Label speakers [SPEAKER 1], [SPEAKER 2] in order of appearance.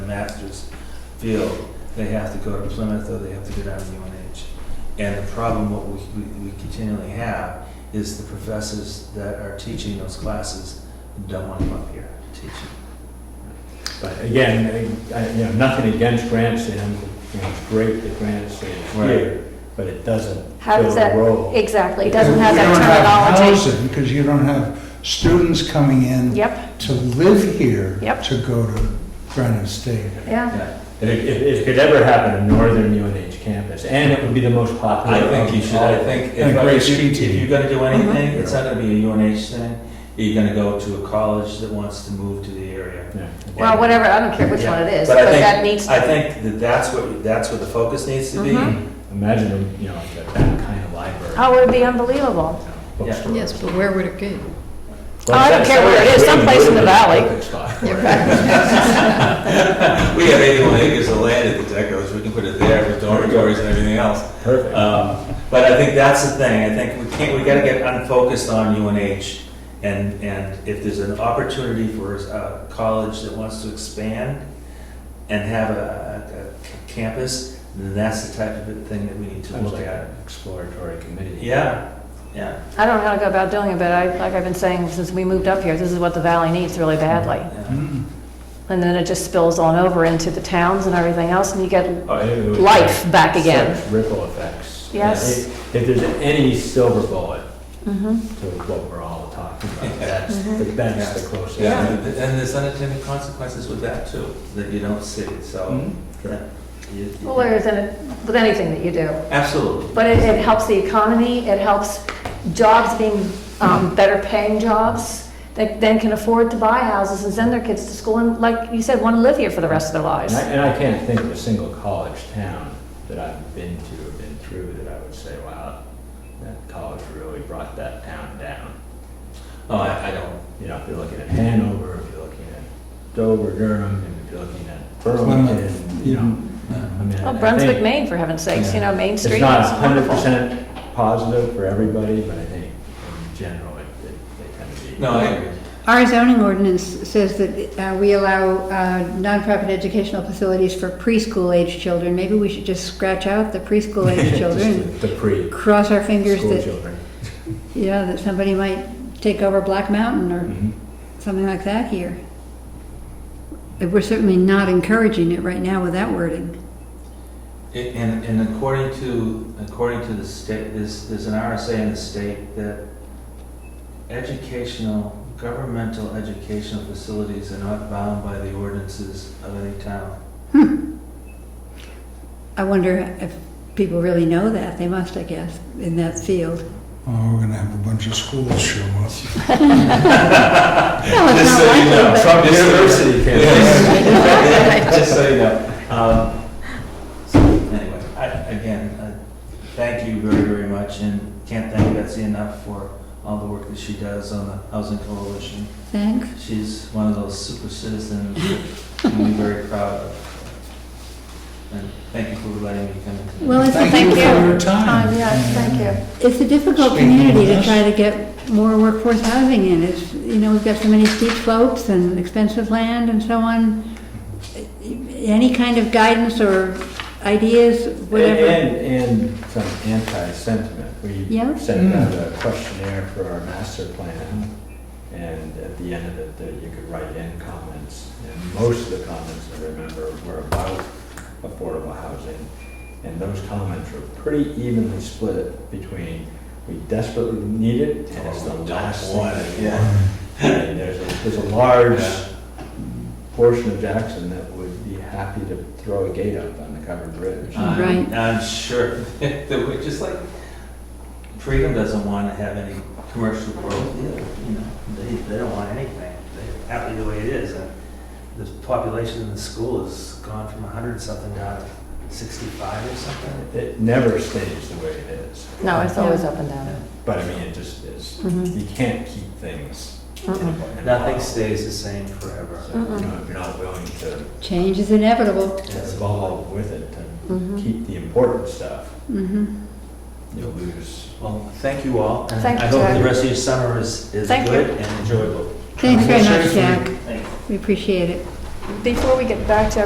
[SPEAKER 1] Masters field, they have to go to Plymouth or they have to go down to UNH. And the problem, what we, we- we continually have is the professors that are teaching those classes don't want them up here teaching.
[SPEAKER 2] But again, I- I- you know, nothing against Grandstand, you know, it's great that Grandstand is
[SPEAKER 1] Right.
[SPEAKER 2] here, but it doesn't
[SPEAKER 3] How
[SPEAKER 2] fill
[SPEAKER 3] does
[SPEAKER 2] the
[SPEAKER 3] that-
[SPEAKER 2] role.
[SPEAKER 3] Exactly, it doesn't have
[SPEAKER 4] You don't
[SPEAKER 3] that
[SPEAKER 4] have
[SPEAKER 3] terminology.
[SPEAKER 4] housing, Because you don't have students coming in
[SPEAKER 3] Yep,
[SPEAKER 4] to live here
[SPEAKER 3] Yep.
[SPEAKER 4] to go to Granite State.
[SPEAKER 3] yeah.
[SPEAKER 1] Yeah.
[SPEAKER 2] If, if if it could ever happen in northern UNH campus, and it would be the most popular.
[SPEAKER 1] I think you
[SPEAKER 2] of
[SPEAKER 1] should,
[SPEAKER 2] all.
[SPEAKER 1] I think,
[SPEAKER 4] And
[SPEAKER 1] if I-
[SPEAKER 4] great
[SPEAKER 1] if you-
[SPEAKER 4] street
[SPEAKER 1] if
[SPEAKER 4] team.
[SPEAKER 1] you're gonna do anything,
[SPEAKER 3] Mm-hmm.
[SPEAKER 1] it's not gonna be a UNH thing. You're gonna go to a college that wants to move to the area.
[SPEAKER 2] Yeah.
[SPEAKER 3] Well, whatever, I don't care which one it is,
[SPEAKER 1] But I
[SPEAKER 3] but
[SPEAKER 1] think-
[SPEAKER 3] that needs,
[SPEAKER 1] I think that that's what, that's what the focus needs to be.
[SPEAKER 3] Mhm.
[SPEAKER 2] Imagine, you know, like that- that kind of library.
[SPEAKER 3] oh, it would be unbelievable.
[SPEAKER 2] you know,
[SPEAKER 1] Yeah.
[SPEAKER 2] bookstore.
[SPEAKER 5] Yes, but where would it be?
[SPEAKER 2] Well,
[SPEAKER 3] Oh, I don't
[SPEAKER 2] that-
[SPEAKER 3] care where it is,
[SPEAKER 2] somewhere
[SPEAKER 3] someplace in the
[SPEAKER 2] Greenwood is a
[SPEAKER 3] valley.
[SPEAKER 2] perfect spot for
[SPEAKER 5] Yeah,
[SPEAKER 2] it.
[SPEAKER 5] right.
[SPEAKER 1] We have 81 acres of land at the Deckers, we can put it there with dormitories and everything else.
[SPEAKER 2] Perfect.
[SPEAKER 1] Um, But I think that's the thing, I think we can't, we gotta get unfocused on UNH. And, and if there's an opportunity for a college that wants to expand and have a, a- a campus, then that's the type of thing that we need to
[SPEAKER 2] Kind of
[SPEAKER 1] look
[SPEAKER 2] like
[SPEAKER 1] at.
[SPEAKER 2] an exploratory committee.
[SPEAKER 1] Yeah, yeah.
[SPEAKER 3] I don't know how to go about doing it, but I, like I've been saying since we moved up here, this is what the valley needs really badly.
[SPEAKER 1] yeah.
[SPEAKER 4] Mm.
[SPEAKER 3] And then it just spills on over into the towns and everything else, and you get,
[SPEAKER 2] Oh, it would-
[SPEAKER 3] Life back again.
[SPEAKER 2] Such Ripple effects.
[SPEAKER 3] Yes.
[SPEAKER 2] If if there's any silver bullet
[SPEAKER 3] mhm.
[SPEAKER 2] to what we're all talking about, that's, the- that's the closest.
[SPEAKER 1] Mm-hmm. Yeah, and and there's unintended consequences with that too, that you don't see,
[SPEAKER 2] Mm-hmm.
[SPEAKER 1] so. yeah. You- you-
[SPEAKER 3] well, there's, an- with anything that you do.
[SPEAKER 1] Absolutely.
[SPEAKER 3] But it, it helps the economy, it helps jobs being, um, better paying jobs, that then can afford to buy houses and send their kids to school, and like you said, want to live here for the rest of their lives.
[SPEAKER 2] And I, and I can't think of a single college town that I've been to or been through that I would say, wow, that college really brought that town down.
[SPEAKER 1] Oh, I, I don't,
[SPEAKER 2] You know, if you're looking at Hanover, if you're looking at Dover, Durham, and if you're looking at Burlington,
[SPEAKER 4] Plymouth,
[SPEAKER 2] you know.
[SPEAKER 1] yeah.
[SPEAKER 2] I mean,
[SPEAKER 3] Well,
[SPEAKER 2] I
[SPEAKER 3] Brunswick,
[SPEAKER 2] think
[SPEAKER 3] Maine, for heaven's sakes, you know, Main Street.
[SPEAKER 2] It's not
[SPEAKER 3] is
[SPEAKER 2] hundred
[SPEAKER 3] wonderful.
[SPEAKER 2] percent positive for everybody, but I think in general, it, it- they tend to be.
[SPEAKER 1] no, I agree.
[SPEAKER 5] Our zoning ordinance says that uh, we allow uh, nonprofit educational facilities for preschool-age children. Maybe we should just scratch out the preschool-age children,
[SPEAKER 2] Just The the pre,
[SPEAKER 5] cross our fingers
[SPEAKER 2] school
[SPEAKER 5] that,
[SPEAKER 2] children.
[SPEAKER 5] you know, that somebody might take over Black Mountain or
[SPEAKER 2] Mhm.
[SPEAKER 5] something like that here. But We're certainly not encouraging it right now with that wording.
[SPEAKER 1] It- And, and according to, according to the state, there's, there's an RSA in the state that educational, governmental educational facilities are not bound by the ordinances of any town.
[SPEAKER 5] I wonder if people really know that. They must, I guess, in that field.
[SPEAKER 4] Oh, we're gonna have a bunch of schools show up.
[SPEAKER 5] Well, Oh, it's
[SPEAKER 1] Just
[SPEAKER 5] not
[SPEAKER 1] so you
[SPEAKER 5] likely,
[SPEAKER 1] know,
[SPEAKER 5] but-
[SPEAKER 2] Trump
[SPEAKER 1] Just so you know.
[SPEAKER 2] University
[SPEAKER 1] Yeah. Just so you know. Um, so Anyway, I, again, I thank you very, very much and can't thank Betsy enough for all the work that she does on the Housing Coalition.
[SPEAKER 5] Thanks.
[SPEAKER 1] She's one of those super citizens that I'm very proud of. And thank you for letting me come in.
[SPEAKER 5] Well, it's a
[SPEAKER 4] Thank you for
[SPEAKER 3] you.
[SPEAKER 4] your time.
[SPEAKER 3] Time, yes, thank you.
[SPEAKER 5] It's a difficult
[SPEAKER 4] Speaking of
[SPEAKER 5] community to
[SPEAKER 4] this-
[SPEAKER 5] try to get more workforce housing in. It's, you know, we've got so many steep slopes and expensive land and so on. Any kind of guidance or ideas, whatever.
[SPEAKER 2] And, and some anti-sentiment. We
[SPEAKER 5] Yeah.
[SPEAKER 1] Hmm.
[SPEAKER 2] sent out a questionnaire for our master plan, and at the end of it, there- you could write in comments. And most of the comments, I remember, were about affordable housing. And those comments were pretty evenly split between, we desperately need it, and it's the
[SPEAKER 1] Oh, don't
[SPEAKER 2] last
[SPEAKER 1] want it,
[SPEAKER 2] thing we
[SPEAKER 1] yeah.
[SPEAKER 4] uh,
[SPEAKER 2] want. And There's a, there's a large portion of Jackson that would be happy to throw a gate up on the covered
[SPEAKER 1] Ah,
[SPEAKER 2] bridge.
[SPEAKER 1] Uh, I'm-
[SPEAKER 5] Right.
[SPEAKER 1] I'm sure that we're just like, Freedom doesn't want to have any commercial growth either, you know, they, they don't want anything. They're happy the way it is. And The population in the school has gone from 100 something down to 65 or something.
[SPEAKER 2] It never stays the way it is.
[SPEAKER 3] No, it's always up and down.
[SPEAKER 2] But I mean, it just is,
[SPEAKER 5] mm-hmm,
[SPEAKER 3] Mhm.
[SPEAKER 2] you can't keep things. in a-
[SPEAKER 3] Mm-mm.
[SPEAKER 2] in a
[SPEAKER 1] Nothing
[SPEAKER 2] model.
[SPEAKER 1] stays the same forever.
[SPEAKER 2] So, You know, if you're not willing to
[SPEAKER 5] Change is inevitable.
[SPEAKER 2] evolve with it, to
[SPEAKER 3] Mhm.
[SPEAKER 2] keep the important stuff,
[SPEAKER 5] Mhm.
[SPEAKER 2] you'll lose.
[SPEAKER 1] Well, thank you all. and
[SPEAKER 3] Thank
[SPEAKER 1] I
[SPEAKER 3] you,
[SPEAKER 1] hope
[SPEAKER 3] Jack.
[SPEAKER 1] the rest of your summer is, is
[SPEAKER 3] Thank
[SPEAKER 1] good
[SPEAKER 3] you.
[SPEAKER 1] and enjoyable.
[SPEAKER 5] Thanks very much,
[SPEAKER 4] Seriously.
[SPEAKER 5] Jack.
[SPEAKER 1] Thank you.
[SPEAKER 5] We appreciate it.
[SPEAKER 3] Before we get back to